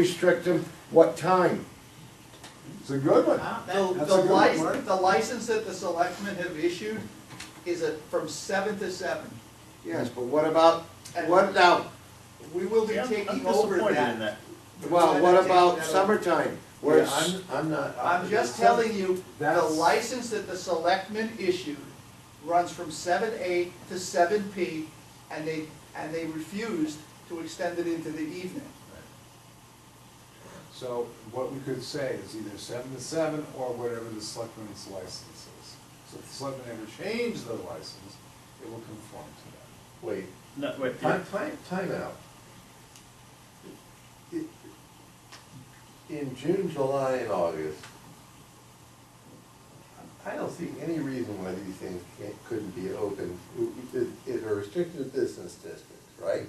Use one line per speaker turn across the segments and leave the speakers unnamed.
restrict them, what time?
It's a good one.
The,
That's
the
a good
license,
word.
the license that the selectmen have issued is a, from seven to seven.
Yes, but what about, what now,
We will be
Yeah, I'm-
taking over
I'm disappointed in
that.
that.
well, what about
summer?
summertime? Where
Yeah,
it's,
I'm, I'm not.
I'm just telling you, the
That's-
license that the selectmen issued runs from seven A to seven P, and they, and they refused to extend it into the evening.
So what we could say is either seven to seven or whatever the selectmen's license is. So if the selectmen ever change their license, it will conform to
Wait,
No, wait,
time, time, timeout. It- In June, July, and August, I don't see any reason why these things can't, couldn't be open, it, it's a restricted business district, right?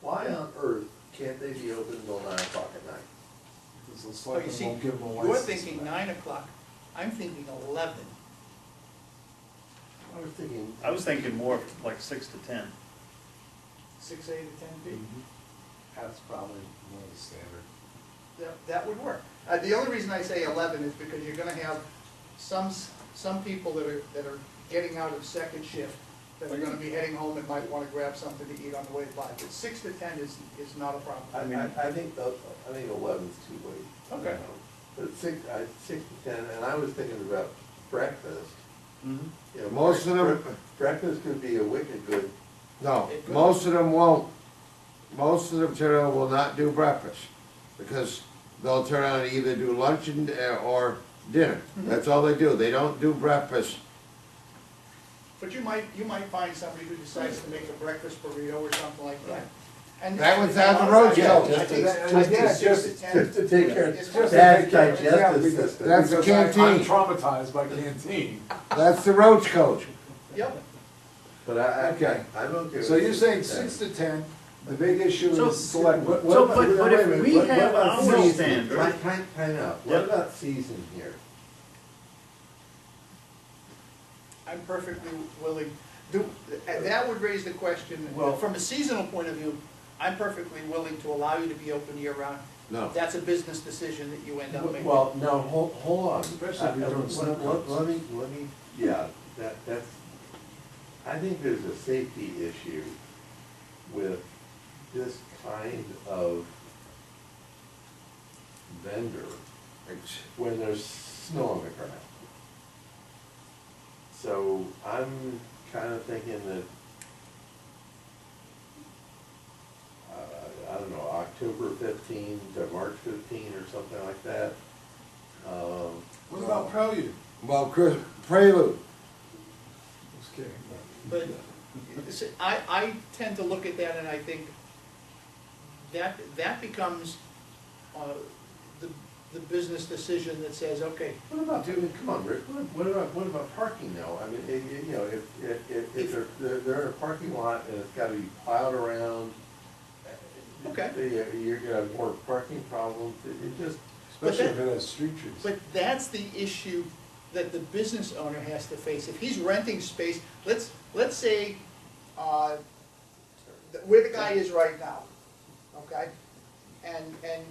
Why on earth can't they be open until nine o'clock at night?
that. Because the
But
selectmen
you see,
won't give them a license.
you're
for
thinking
that.
nine o'clock, I'm thinking eleven.
I was thinking.
I was thinking more like six to ten.
Six A to ten P.
Mm-hmm. That's probably more the standard.
That, that would work. Uh, the only reason I say eleven is because you're gonna have some, s- some people that are, that are getting out of second shift that are gonna be heading home and might wanna grab something to eat on the way by, but six to ten is, is not a
I,
problem.
mean-
I, I think, the- I think eleven's too late.
Okay.
But six, I, six to ten, and I was thinking about breakfast. You know,
Most of them-
bre- Breakfast could be a wicked good,
no, most of them won't. Most of them turn around will not do breakfast, because they'll turn around and either do lunch and, uh, or dinner. That's all they do, they don't do breakfast.
But you might, you might find somebody who decides to make a breakfast burrito or something like that. And-
That was down the
and a lot
road,
of
yeah,
times-
just
I think
to-
that-
just to-
I think
just-
six to ten-
just to take care
It's
of
just to
bad
take care of- yeah,
digestive
because-
system.
That's the
Because I- I'm
canteen.
traumatized by canteen.
That's the roach coach.
Yep,
But I, I,
Okay.
I'm okay with.
So you're saying
that.
six to ten, the big issue
So-
is select. what- what
so,
about-
but-
wait a
but if
minute,
we
what- what
have
about
our
season?
stand-
Time,
standard.
time, time out,
Yep.
what about season here?
I'm perfectly willing, do, uh, that would raise the question,
Well-
from a seasonal point of view, I'm perfectly willing to allow you to be open year-round.
No.
That's a business decision that you end up making.
Well, no, hold, hold on.
Especially if you're
Uh,
doing
let-
snow
let-
cones.
Let me, let me, yeah, that, that's, I think there's a safety issue with this kind of vendor when there's snow on the ground. So I'm kinda thinking that, uh, I don't know, October fifteen to March fifteen or something like that. Um,
What about Prelude?
Well, Chris, prelude,
Just kidding.
But s- I, I tend to look at that and I think that, that becomes, uh, the, the business decision that says, okay,
What about, dude, come on, Rick, what what about, what about parking though? I mean, it- it- you know, if, if, if- if they're, they're- they're in a parking lot and it's gotta be plowed around.
Okay.
you- You're gonna have more parking problems, it, it just,
But
Especially if
that-
it has street trees.
But that's the issue that the business owner has to face. If he's renting space, let's, let's say, uh, th- where the guy is right now, okay? And, and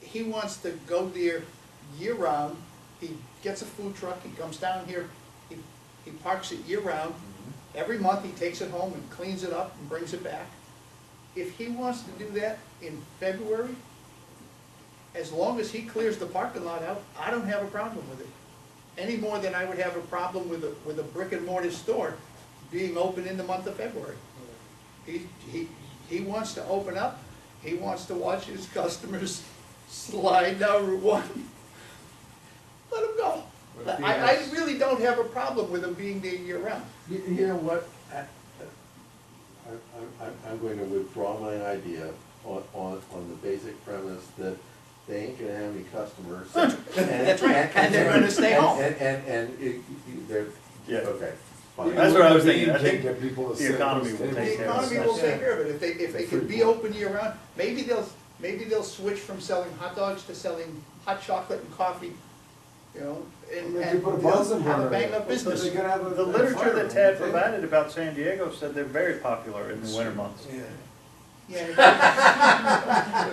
he wants to go there year-round, he gets a food truck, he comes down here, he, he parks it year-round. Every month, he takes it home and cleans it up and brings it back. If he wants to do that in February, as long as he clears the parking lot out, I don't have a problem with it. Any more than I would have a problem with a, with a brick and mortar store being open in the month of February. He, he, he wants to open up, he wants to watch his customers slide down Route one. Let him go.
But if he
I, I
has-
really don't have a problem with him being there year round.
you, you know what? I, I, I'm, I'm going to withdraw my idea on, on, on the basic premise that they ain't gonna have any customers. That's
right, and they're gonna stay home.
And, and, and it- you- they're,
Yeah.
okay, fine.
That's what I was thinking. I
You can't
think
get people to
the
sit at
economy
those
will take
tables.
The
care
economy will
Yeah.
take care of it, if they, if they can be open year round, maybe they'll, maybe they'll switch from selling hot dogs to selling hot chocolate and coffee, you know, and,
They
and
put a
they'll
Bunsen
have
burner
a
in
bang
it.
up business.
So they can have a- a
The literature
fire
that Tad
room.
provided about San Diego said they're very popular in the winter months.
Yeah.
Yeah.